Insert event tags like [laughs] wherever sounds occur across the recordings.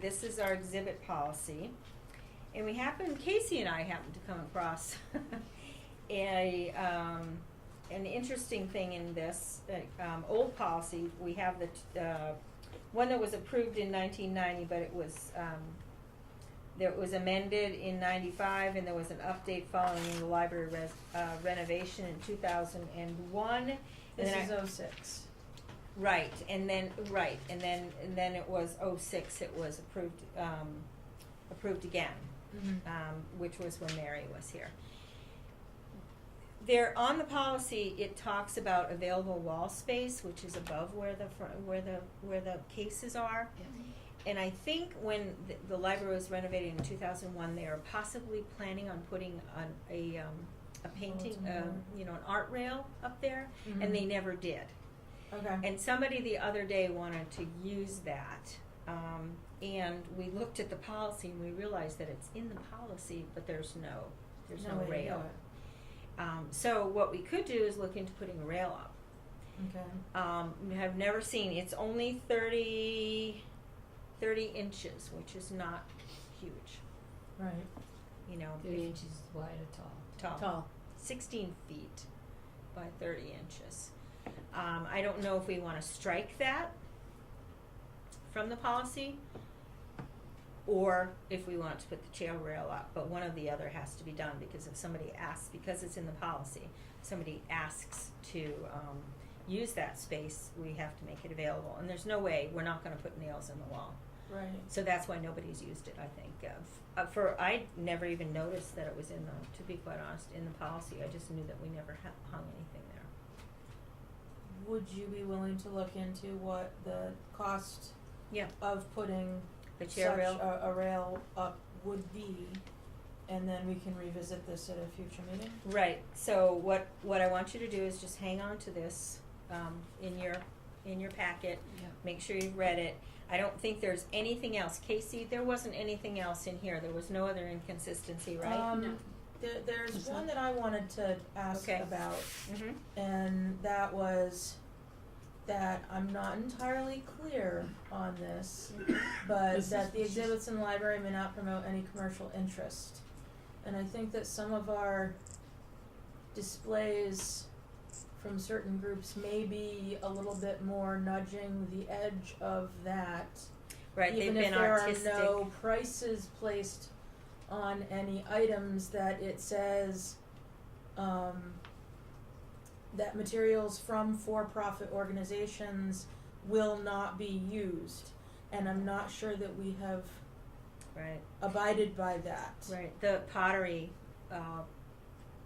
this is our exhibit policy. And we happened, Casey and I happened to come across [laughs] a, um, an interesting thing in this, uh, um, old policy. We have the, t- uh, one that was approved in nineteen ninety, but it was, um, that was amended in ninety-five, and there was an update following the library res- uh, renovation in two thousand and one. And then This is I- oh six. Right, and then, right, and then, and then it was oh six, it was approved, um, approved again, um, which was when Mary was here. There, on the policy, it talks about available wall space, which is above where the fr- where the, where the cases are. And I think when the, the library was renovated in two thousand one, they are possibly planning on putting on a, um, a painting, Multiple. um, you know, an art rail up there, and they Mhm. never did. Okay. And somebody the other day wanted to use that. Um, and we looked at the policy and we realized that it's in the policy, but there's no, there's no, way to do rail. Um, so what we could do is look into putting a rail up. it. Okay. Um, we have never seen, it's only 30, 30 inches, which is not huge, Right. you know, Three if inches wide or tall. tall. 16 feet by 30 inches. Um, I don't know if we want to strike that from the policy or if we want to put the chair rail up, but one of the other has to be done because if somebody asks, because it's in the policy, somebody asks to um, use that space, we have to make it available. And there's no way we're not going to put nails in the wall. Right. So that's why nobody's used it, I think. Uh, f- Uh, for I never even noticed that it was in the, to be quite honest, in the policy. I just knew that we never ha- hung anything there. Would you be willing to look into what the cost Yeah, of putting the such chair rail. a, a rail up would be? And then we can revisit this at a future meeting? Right. So what what I want you to do is just hang on to this um, in your in your packet. Yeah. Make sure you've read it. I don't think there's anything else, Casey. There wasn't anything else in here. There was no other inconsistency, right? Um, No. there, Is there's that- one that I wanted to ask Okay. about, mm-hmm. and that was that I'm not entirely clear on this, but This is- that the exhibits in the library may not promote any commercial interest. And I think that some of our displays from certain groups may be a little bit more nudging the edge of that. Right. Even they've if been there artistic. are no prices placed on any items, that it says um, that materials from for-profit organizations will not be used, and I'm not sure that we have Right. abided by that. Right, the pottery uh,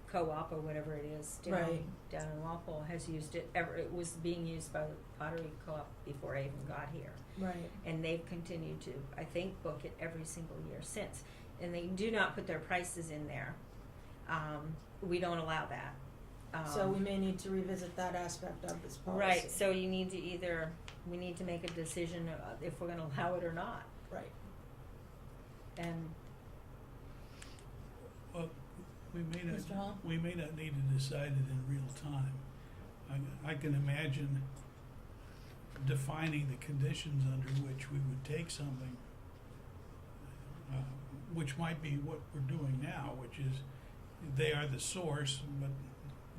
co-op or whatever it is down Right. down in Walpole has used it. Ever it was being used by the pottery co-op before I even got here, Right. and they've continued to, I think, book it every single year since. And they do not put their prices in there. Um, we don't allow that. Um, so we may need to revisit that aspect of this policy. right. So you need to either we need to make a decision uh, if we're going to allow it or not, right. and Well, we may Mr. Hall? not, we may not need to decide it in real time. I, I can imagine defining the conditions under which we would take something, uh, which might be what we're doing now, which is they are the source, but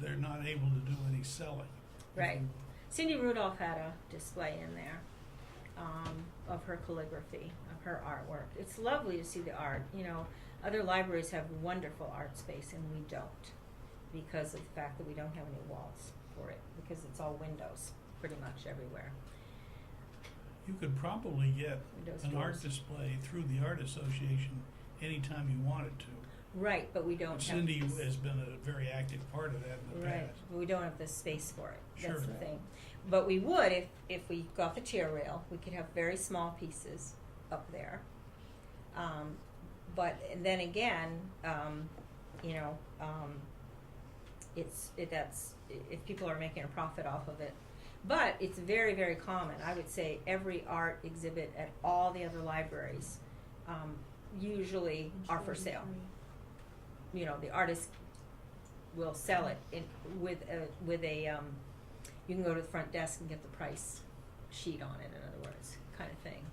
they're not able to do any selling. Right. Cindy Rudolph had a display in there um, of her calligraphy, of her artwork. It's lovely to see the art. You know, other libraries have wonderful art space, and we don't because of the fact that we don't have any walls for it, because it's all windows pretty much everywhere. You could probably get Windows an art doors. display through the art association anytime you wanted to. Right, but we don't Cindy have. has been a very active part of that in the Right, past. but we don't have the space for it. That's Sure. the thing. But we would if if we got the chair rail, we could have very small pieces up there. Um, but then again, um, you know, um, it's it, that's i- if people are making a profit off of it. But it's very very common. I would say every art exhibit at all the other libraries um, usually are for sale you know, the artist will sell it in, with a, with a, um, you can go to the front desk and get the price sheet on it, in other words, kind of thing.